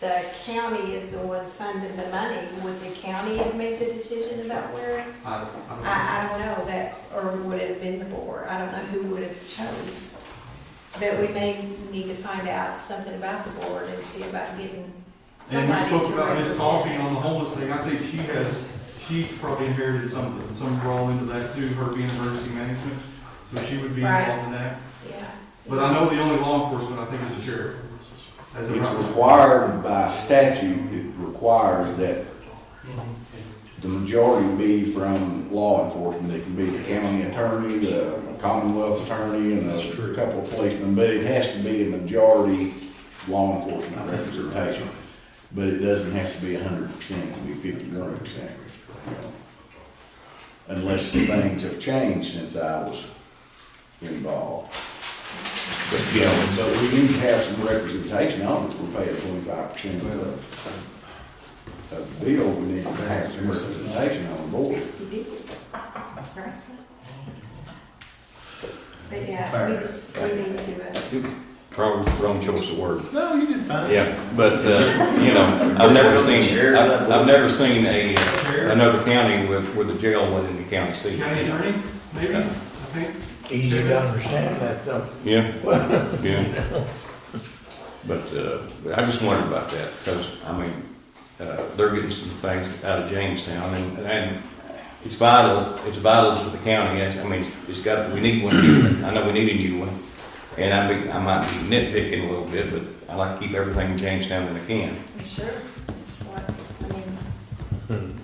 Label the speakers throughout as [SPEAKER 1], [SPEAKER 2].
[SPEAKER 1] the county is the one funding the money, would the county have made the decision about where?
[SPEAKER 2] I,
[SPEAKER 1] I, I don't know that, or would it have been the board? I don't know who would have chose. But we may need to find out something about the board and see about getting
[SPEAKER 3] And we
[SPEAKER 1] somebody to
[SPEAKER 3] spoke about Miss
[SPEAKER 1] represent
[SPEAKER 3] Coffee on the
[SPEAKER 1] us.
[SPEAKER 3] homeless thing, I think she has, she's probably inherited some of it, some role into that too, her being emergency management, so she would be
[SPEAKER 1] Right.
[SPEAKER 3] involved in that.
[SPEAKER 1] Yeah.
[SPEAKER 3] But I know the only law enforcement, I think, is the sheriff. As of
[SPEAKER 4] It's
[SPEAKER 3] right now.
[SPEAKER 4] required by statute, it requires that the majority be from law enforcement. It can be the county attorney, the Commonwealth attorney, and a couple of policemen, but it has to be a majority law enforcement representation. But it doesn't have to be hundred percent, it can be fifty-one percent. Unless things have changed since I was involved. But, you know, but we need to have some representation on it, we're paying twenty-five percent of the, of the bill, we need to have some representation on the board.
[SPEAKER 1] You did. Right. But yeah, we just, we need to, uh,
[SPEAKER 5] Wrong, wrong choice of word.
[SPEAKER 6] No, you did fine.
[SPEAKER 5] Yeah, but, uh, you know, I've never seen, I've, I've never seen a, another county with, with a jail within the county seat.
[SPEAKER 3] County attorney, maybe, I think.
[SPEAKER 7] Easy to understand that though.
[SPEAKER 5] Yeah, yeah. But, uh, I just wondered about that, because, I mean, uh, they're getting some things out of Jamestown, and, and it's vital, it's vital to the county, I I mean, it's got, we need one, I know we need a new one. And I, be- I might be nitpicking a little bit, but I like to keep everything in Jamestown that I can.
[SPEAKER 1] I'm sure it's what, I mean.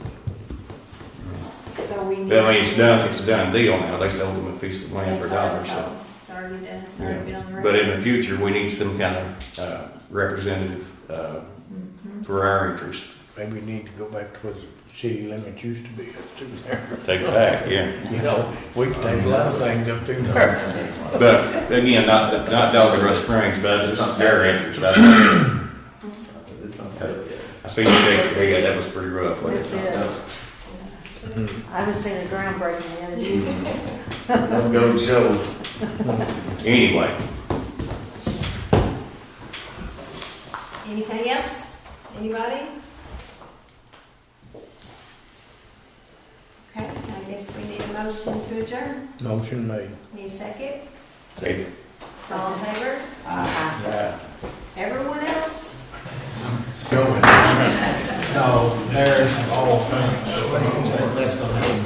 [SPEAKER 1] So we need.
[SPEAKER 5] But I mean, Hmm. it's
[SPEAKER 1] to-
[SPEAKER 5] done, it's a done deal now, they sold them a piece of land for a dollar,
[SPEAKER 1] It's
[SPEAKER 5] so.
[SPEAKER 1] already sold. It's already done, it's already been on the record.
[SPEAKER 5] But in the future, we need some kind of uh, representative uh,
[SPEAKER 1] Mhm.
[SPEAKER 5] for our interest.
[SPEAKER 7] Maybe you need to go back to what the city limits used to be up through there.
[SPEAKER 5] Take it back, yeah.
[SPEAKER 7] You know, we can take a lot of things up through there.
[SPEAKER 5] But again, not, not Dollar Springs, but it's their interest. I
[SPEAKER 2] It's something, yeah.
[SPEAKER 5] I seen the big, yeah, that was pretty rough. wasn't it?
[SPEAKER 8] That's it.
[SPEAKER 7] Hmm.
[SPEAKER 5] Mm-hmm.
[SPEAKER 8] I haven't seen a groundbreaking yet. have you?
[SPEAKER 2] Don't go to Joe's.
[SPEAKER 5] Anyway,
[SPEAKER 1] Anything else? Anybody? Okay, I guess we need a motion to adjourn.
[SPEAKER 7] Motion made.
[SPEAKER 1] Need a second?
[SPEAKER 5] take it.
[SPEAKER 1] All in favor?
[SPEAKER 7] Right.
[SPEAKER 1] Everyone else?
[SPEAKER 6] No, there's all things. That's gonna happen.